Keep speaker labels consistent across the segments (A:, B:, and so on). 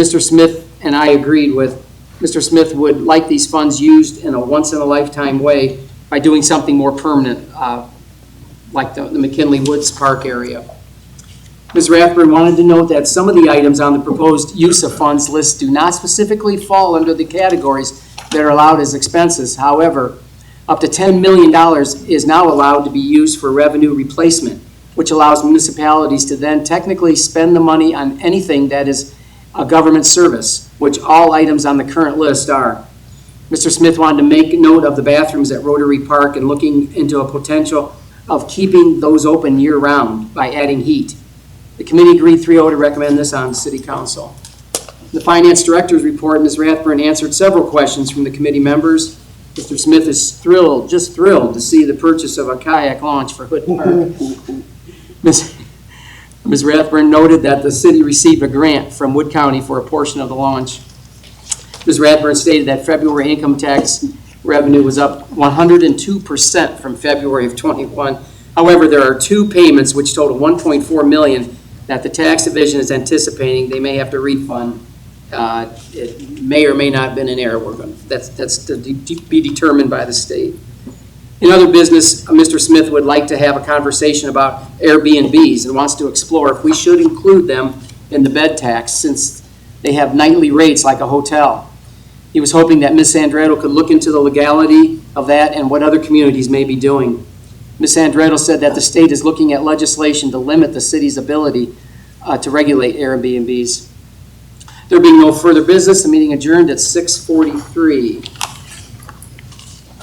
A: Mr. Smith and I agreed with, Mr. Smith would like these funds used in a once-in-a-lifetime way by doing something more permanent, uh, like the the McKinley Woods Park area. Ms. Rathburn wanted to note that some of the items on the proposed use of funds list do not specifically fall under the categories that are allowed as expenses. However, up to $10 million is now allowed to be used for revenue replacement, which allows municipalities to then technically spend the money on anything that is a government service, which all items on the current list are. Mr. Smith wanted to make note of the bathrooms at Rotary Park and looking into a potential of keeping those open year-round by adding heat. The committee agreed 3-0 to recommend this on city council. The finance director's report, Ms. Rathburn answered several questions from the committee members. Mr. Smith is thrilled, just thrilled, to see the purchase of a kayak launch for Hood Park. Ms. Ms. Rathburn noted that the city received a grant from Wood County for a portion of the launch. Ms. Rathburn stated that February income tax revenue was up 102% from February of '21. However, there are two payments which total 1.4 million that the tax division is anticipating they may have to refund. Uh, It may or may not have been an error. We're going, that's, that's to de- de- be determined by the state. In other business, uh, Mr. Smith would like to have a conversation about Airbnbs and wants to explore if we should include them in the bed tax since they have nightly rates like a hotel. He was hoping that Ms. Sandretto could look into the legality of that and what other communities may be doing. Ms. Sandretto said that the state is looking at legislation to limit the city's ability uh, to regulate Airbnbs. There being no further business, the meeting adjourned at 6:43.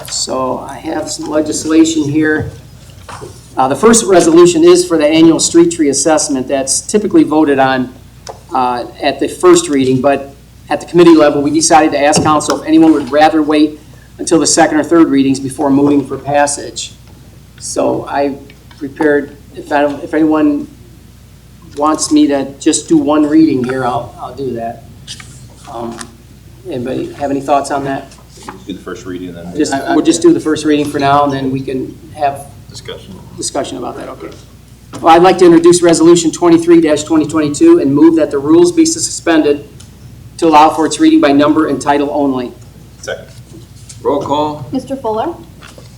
A: So I have some legislation here. Uh, The first resolution is for the annual street tree assessment that's typically voted on uh, at the first reading, but at the committee level, we decided to ask council if anyone would rather wait until the second or third readings before moving for passage. So I prepared, if I- if anyone wants me to just do one reading here, I'll, I'll do that. Um, Anybody have any thoughts on that?
B: Do the first reading and then
A: Just, we'll just do the first reading for now, and then we can have
B: discussion.
A: discussion about that, okay. Well, I'd like to introduce Resolution 23-2022 and move that the rules be suspended to allow for its reading by number and title only.
B: Second.
C: Roll call?
D: Mr. Fuller,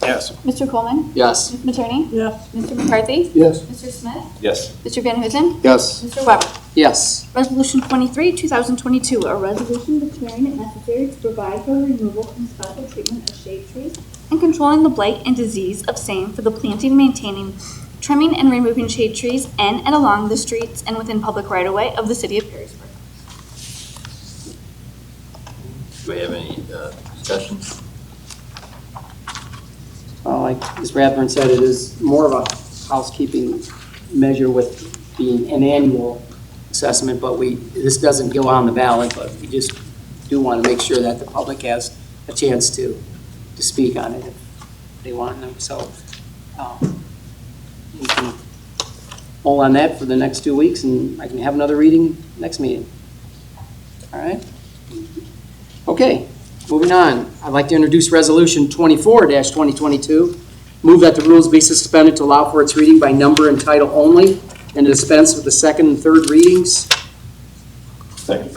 B: Yes.
D: Mr. Coleman,
A: Yes.
D: Ms. Matroni,
E: Yes.
D: Mr. McCarthy,
E: Yes.
D: Mr. Smith,
B: Yes.
D: Mr. Van Huzen,
C: Yes.
D: Mr. Weber.
A: Yes.
D: Resolution 23, 2022, a resolution declaring it necessary to provide for removal and special treatment of shade trees and controlling the blight and disease of same for the planting, maintaining, trimming, and removing shade trees in and along the streets and within public right-of-way of the city of Perrysburg.
C: Do we have any uh, discussions?
A: Well, Uh, Like Ms. Rathburn said, it is more of a housekeeping measure with being an annual assessment, but we, this doesn't go on the ballot, but we just do want to make sure that the public has a chance to, to speak on it if they want to, so. um, we can Hold on that for the next two weeks, and I can have another reading next meeting. All right? Okay, moving on. I'd like to introduce Resolution 24-2022. Move that the rules be suspended to allow for its reading by number and title only, and dispense with the second and third readings.
B: Second.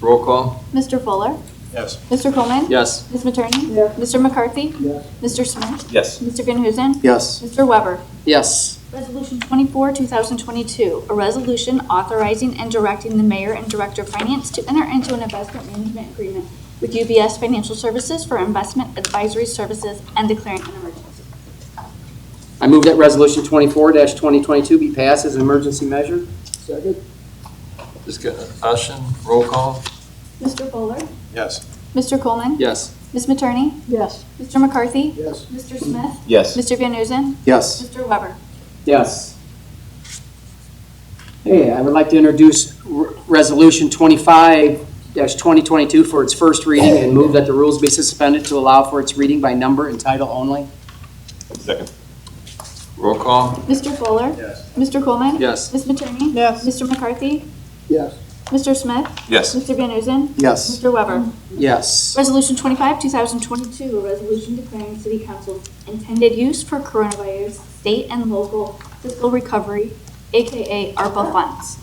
C: Roll call?
D: Mr. Fuller,
B: Yes.
D: Mr. Coleman,
C: Yes.
D: Ms. Matroni,
E: Yes.
D: Mr. McCarthy,
E: Yes.
D: Mr. Smith,
B: Yes.
D: Mr. Van Huzen,
C: Yes.
D: Mr. Weber.
A: Yes.
D: Resolution 24, 2022, a resolution authorizing and directing the mayor and director of finance to enter into an investment management agreement with UBS Financial Services for investment advisory services and declaring an emergency.
A: I move that Resolution 24-2022 be passed as an emergency measure.
E: Second?
C: Discussion? Roll call?
D: Mr. Fuller?
B: Yes.
D: Mr. Coleman?
C: Yes.
D: Ms. Matroni?
E: Yes.
D: Mr. McCarthy?
E: Yes.
D: Mr. Smith?
B: Yes.
D: Mr. Van Nuysen?
C: Yes.
D: Mr. Weber?
A: Yes. Hey, I would like to introduce R- Resolution 25-2022 for its first reading, and move that the rules be suspended to allow for its reading by number and title only.
B: Second.
C: Roll call?
D: Mr. Fuller?
B: Yes.
D: Mr. Coleman?
C: Yes.
D: Ms. Matroni?
E: Yes.
D: Mr. McCarthy?
E: Yes.
D: Mr. Smith?
B: Yes.
D: Mr. Van Nuysen?
C: Yes.
D: Mr. Weber?
A: Yes.
D: Resolution 25, 2022, a resolution declaring city council's intended use for coronavirus state and local fiscal recovery, AKA ARPA funds.